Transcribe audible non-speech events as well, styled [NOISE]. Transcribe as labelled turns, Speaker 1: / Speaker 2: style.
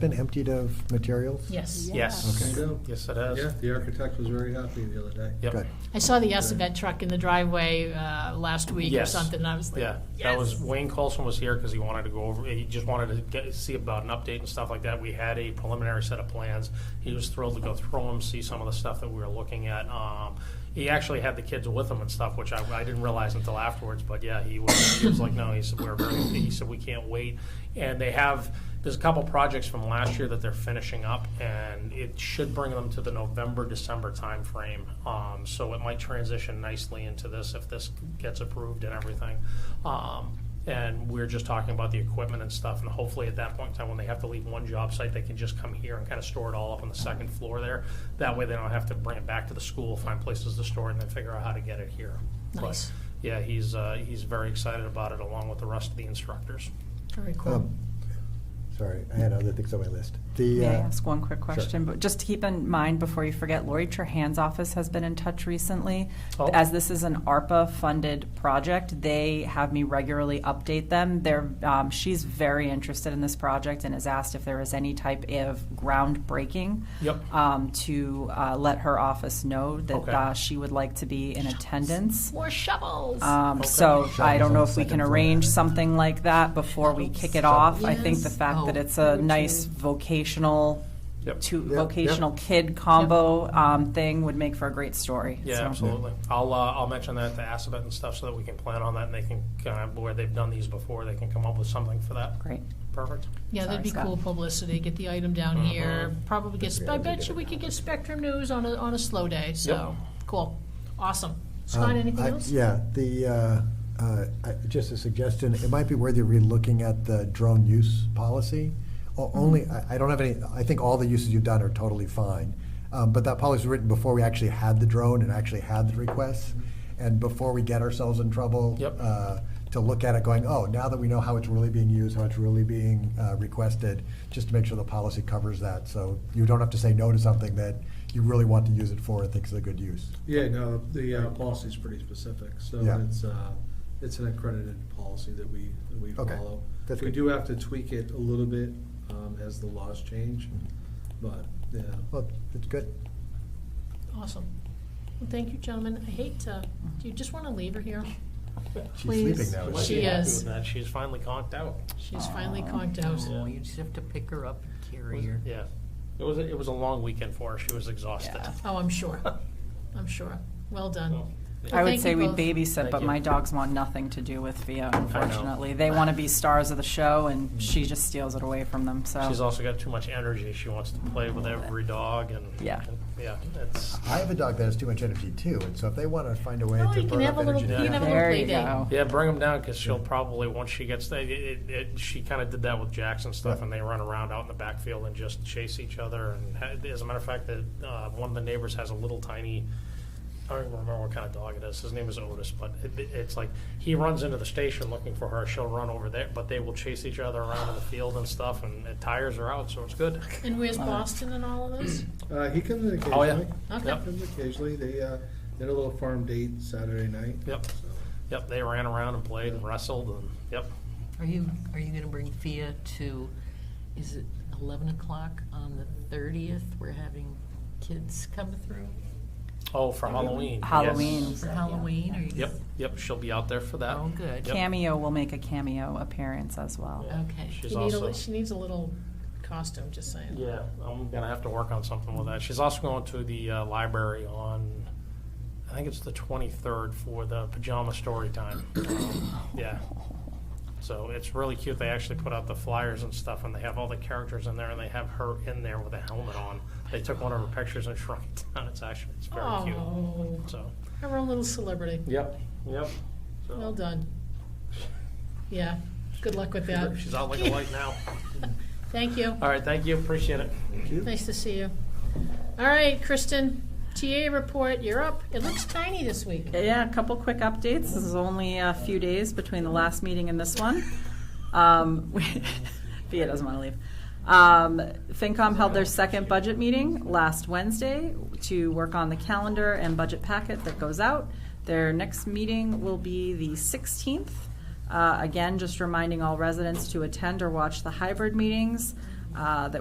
Speaker 1: been emptied of materials?
Speaker 2: Yes.
Speaker 1: Okay.
Speaker 3: Yes.
Speaker 4: Yeah.
Speaker 3: Yes, it has.
Speaker 4: Yeah, the architect was very happy the other day.
Speaker 3: Yep.
Speaker 1: Good.
Speaker 2: I saw the Assevett truck in the driveway uh, last week or
Speaker 3: Yes.
Speaker 2: something, and I was like,
Speaker 3: Yeah, that was,
Speaker 2: "Yes."
Speaker 3: Wayne Colson was here because he wanted to go over, he just wanted to get, see about an update and stuff like that. We had a preliminary set of plans. He was thrilled to go through them, see some of the stuff that we were looking at. Um, he actually had the kids with him and stuff, which I, I didn't realize until afterwards, but yeah, he was, he was like, no, he said, we're very, he said, we can't wait. And they have, there's a couple projects from last year that they're finishing up, and it should bring them to the November, December timeframe. Um, so it might transition nicely into this if this gets approved and everything. Um, and we're just talking about the equipment and stuff, and hopefully at that point in time, when they have to leave one job site, they can just come here and kind of store it all up on the second floor there. That way, they don't have to bring it back to the school, find places to store it, and then figure out how to get it here. But,
Speaker 2: Nice.
Speaker 3: Yeah, he's, uh, he's very excited about it, along with the rest of the instructors.
Speaker 2: Very cool.
Speaker 1: Um, Sorry, I had other things on my list. The,
Speaker 5: May I
Speaker 1: uh,
Speaker 5: ask one quick question? But just keep in mind before you forget, Lori Trahan's office has been in touch recently.
Speaker 3: Oh.
Speaker 5: As this is an ARPA-funded project, they have me regularly update them. They're, um, she's very interested in this project and has asked if there is any type of groundbreaking.
Speaker 3: Yep.
Speaker 5: Um, to, uh, let her office know that,
Speaker 3: Okay.
Speaker 5: uh, she would like to be in attendance.
Speaker 2: More shovels.
Speaker 5: Um,
Speaker 3: Okay.
Speaker 5: so I don't know if we
Speaker 1: Second
Speaker 5: can
Speaker 1: floor.
Speaker 5: arrange something like that before we kick it off. I think the
Speaker 2: Yes.
Speaker 5: fact that
Speaker 2: Oh,
Speaker 5: it's a
Speaker 2: me
Speaker 5: nice
Speaker 2: too.
Speaker 5: vocational
Speaker 3: Yep.
Speaker 5: to
Speaker 1: Yeah,
Speaker 5: vocational kid combo um, thing would make for a great story.
Speaker 3: Yeah,
Speaker 5: So-
Speaker 3: absolutely. I'll, uh, I'll mention that to Assabet and stuff so that we can plan on that and they can, kind of, where they've done these before, they can come up with something for that.
Speaker 5: Great.
Speaker 3: Perfect.
Speaker 2: Yeah, that'd be
Speaker 5: Sorry, Scott.
Speaker 2: cool publicity, get the item
Speaker 3: Uh-huh.
Speaker 2: down here, probably get,
Speaker 1: Yeah,
Speaker 2: I
Speaker 1: we
Speaker 2: bet
Speaker 1: did
Speaker 2: you
Speaker 1: it.
Speaker 2: we could get Spectrum News on a, on a slow day, so, cool. Awesome. Scott,
Speaker 1: um,
Speaker 2: anything
Speaker 1: I-
Speaker 2: else?
Speaker 1: Yeah, the, uh, uh, I- just a suggestion, it might be worth you relooking at the drone use policy. O-
Speaker 2: Mm-hmm.
Speaker 1: Only, I I don't have any, I think all the uses you've done are totally fine. Um, But that policy was written before we actually had the drone and actually had the requests.
Speaker 2: Mm-hmm.
Speaker 1: And before we get ourselves in trouble.
Speaker 3: Yep.
Speaker 1: uh, To look at it going, oh, now that we know how it's really being used, how it's really being uh, requested, just to make sure the policy covers that. So you don't have to say no to something that you really want to use it for and think is a good use.
Speaker 4: Yeah, no, the uh, policy's pretty specific, so
Speaker 1: Yeah.
Speaker 4: it's, uh, it's an accredited policy that we, that we
Speaker 1: Okay,
Speaker 4: follow.
Speaker 1: that's
Speaker 4: We
Speaker 1: good.
Speaker 4: do have to tweak it a little bit um, as the laws change, but, yeah.
Speaker 1: Well, it's good.
Speaker 2: Awesome. Well, thank you, gentlemen. I hate to, do you just want to leave her here?
Speaker 1: She's
Speaker 2: Please.
Speaker 1: sleeping now.
Speaker 2: She
Speaker 3: Happy with
Speaker 2: is.
Speaker 3: that. She's finally conked out.
Speaker 2: She's finally conked out.
Speaker 3: Yeah.
Speaker 6: Oh, you just have to pick her up and carry her.
Speaker 3: Yeah. It was, a- it was a long weekend for her. She was exhausted.
Speaker 5: Yeah.
Speaker 2: Oh, I'm
Speaker 3: [LAUGHS]
Speaker 2: sure. I'm sure. Well
Speaker 3: So,
Speaker 2: done.
Speaker 3: yeah.
Speaker 5: I would
Speaker 2: thank
Speaker 5: say
Speaker 2: you
Speaker 5: we
Speaker 2: both.
Speaker 5: babysit,
Speaker 3: Thank
Speaker 5: but
Speaker 3: you.
Speaker 5: my dogs want nothing to do with Theo, unfortunately. They want to be stars of the show, and she just steals it away from them. So
Speaker 3: Mm. She's also got too much energy. She wants to play with every dog and.
Speaker 5: Yeah.
Speaker 3: Yeah, it's,
Speaker 1: I have a dog that has too much energy too, and so if they want to find a way
Speaker 2: Oh,
Speaker 1: to
Speaker 2: you can
Speaker 1: burn
Speaker 2: have
Speaker 1: up
Speaker 2: a little-
Speaker 1: energy,
Speaker 3: you
Speaker 1: down,
Speaker 3: can have a
Speaker 5: there
Speaker 2: play
Speaker 5: you
Speaker 2: date.
Speaker 5: go.
Speaker 3: yeah, bring them down because she'll probably, once she gets, there, it, it, it, she kind of did that with Jackson stuff and they run around out in the backfield and just chase each other. And ha- as a matter of fact, the, uh, one of the neighbors has a little tiny, I don't even remember what kind of dog it is. His name is Otis, but it, it- it's like he runs into the station looking for her. She'll run over there, but they will chase each other around in the field and stuff. And the tires are out, so it's good.
Speaker 2: And where's Boston and all of this?
Speaker 4: Uh, He comes in
Speaker 3: Oh, yeah.
Speaker 4: occasionally.
Speaker 2: Okay.
Speaker 3: Yep.
Speaker 4: Comes occasionally, they, uh, they had a little farm date Saturday night.
Speaker 3: Yep.
Speaker 4: so.
Speaker 3: Yep, they ran around and played and wrestled and yep.
Speaker 6: Are you, are you gonna bring Fia to, is it eleven o'clock on the thirtieth? We're having kids come through
Speaker 3: Oh, for Halloween. yes.
Speaker 5: Halloween.
Speaker 6: for Halloween, or you?
Speaker 3: Yep, yep, she'll be out there for that.
Speaker 6: Oh, good.
Speaker 3: Yep.
Speaker 5: cameo will make a cameo appearance as well.
Speaker 3: Yeah, [CLEARS THROAT]
Speaker 6: Okay.
Speaker 3: She's
Speaker 2: You need a
Speaker 3: also,
Speaker 2: li- She needs a little costume, just saying.
Speaker 3: yeah, I'm gonna have to work on something with that. She's also going to the uh, library on, I think it's the twenty-third for the pajama
Speaker 2: [COUGHS]
Speaker 3: story time. Um, Yeah. So it's really cute. They actually put out the flyers and stuff and they have all the characters in there and they have her in there with a helmet on. They took one of her pictures and [LAUGHS] shrunk it down. It's actually, it's very cute,
Speaker 2: Oh,
Speaker 3: so.
Speaker 2: our own little celebrity.
Speaker 3: Yep, yep. So-
Speaker 2: Well done. Yeah, good luck with that.
Speaker 3: She's out like a light now.
Speaker 2: [LAUGHS] Thank you.
Speaker 3: All right, thank you, appreciate it.
Speaker 2: Nice to see you. All right, Kristen, TA report, you're up. It looks tiny this week.
Speaker 5: Yeah, a couple quick updates. This is only a few days between the last meeting and this one. Um, [LAUGHS] Fia doesn't want to leave. Um, FinCom held their second budget meeting last Wednesday to work on the calendar and budget packet that goes out. Their next meeting will be the 16th. Uh, again, just reminding all residents to attend or watch the hybrid meetings uh, that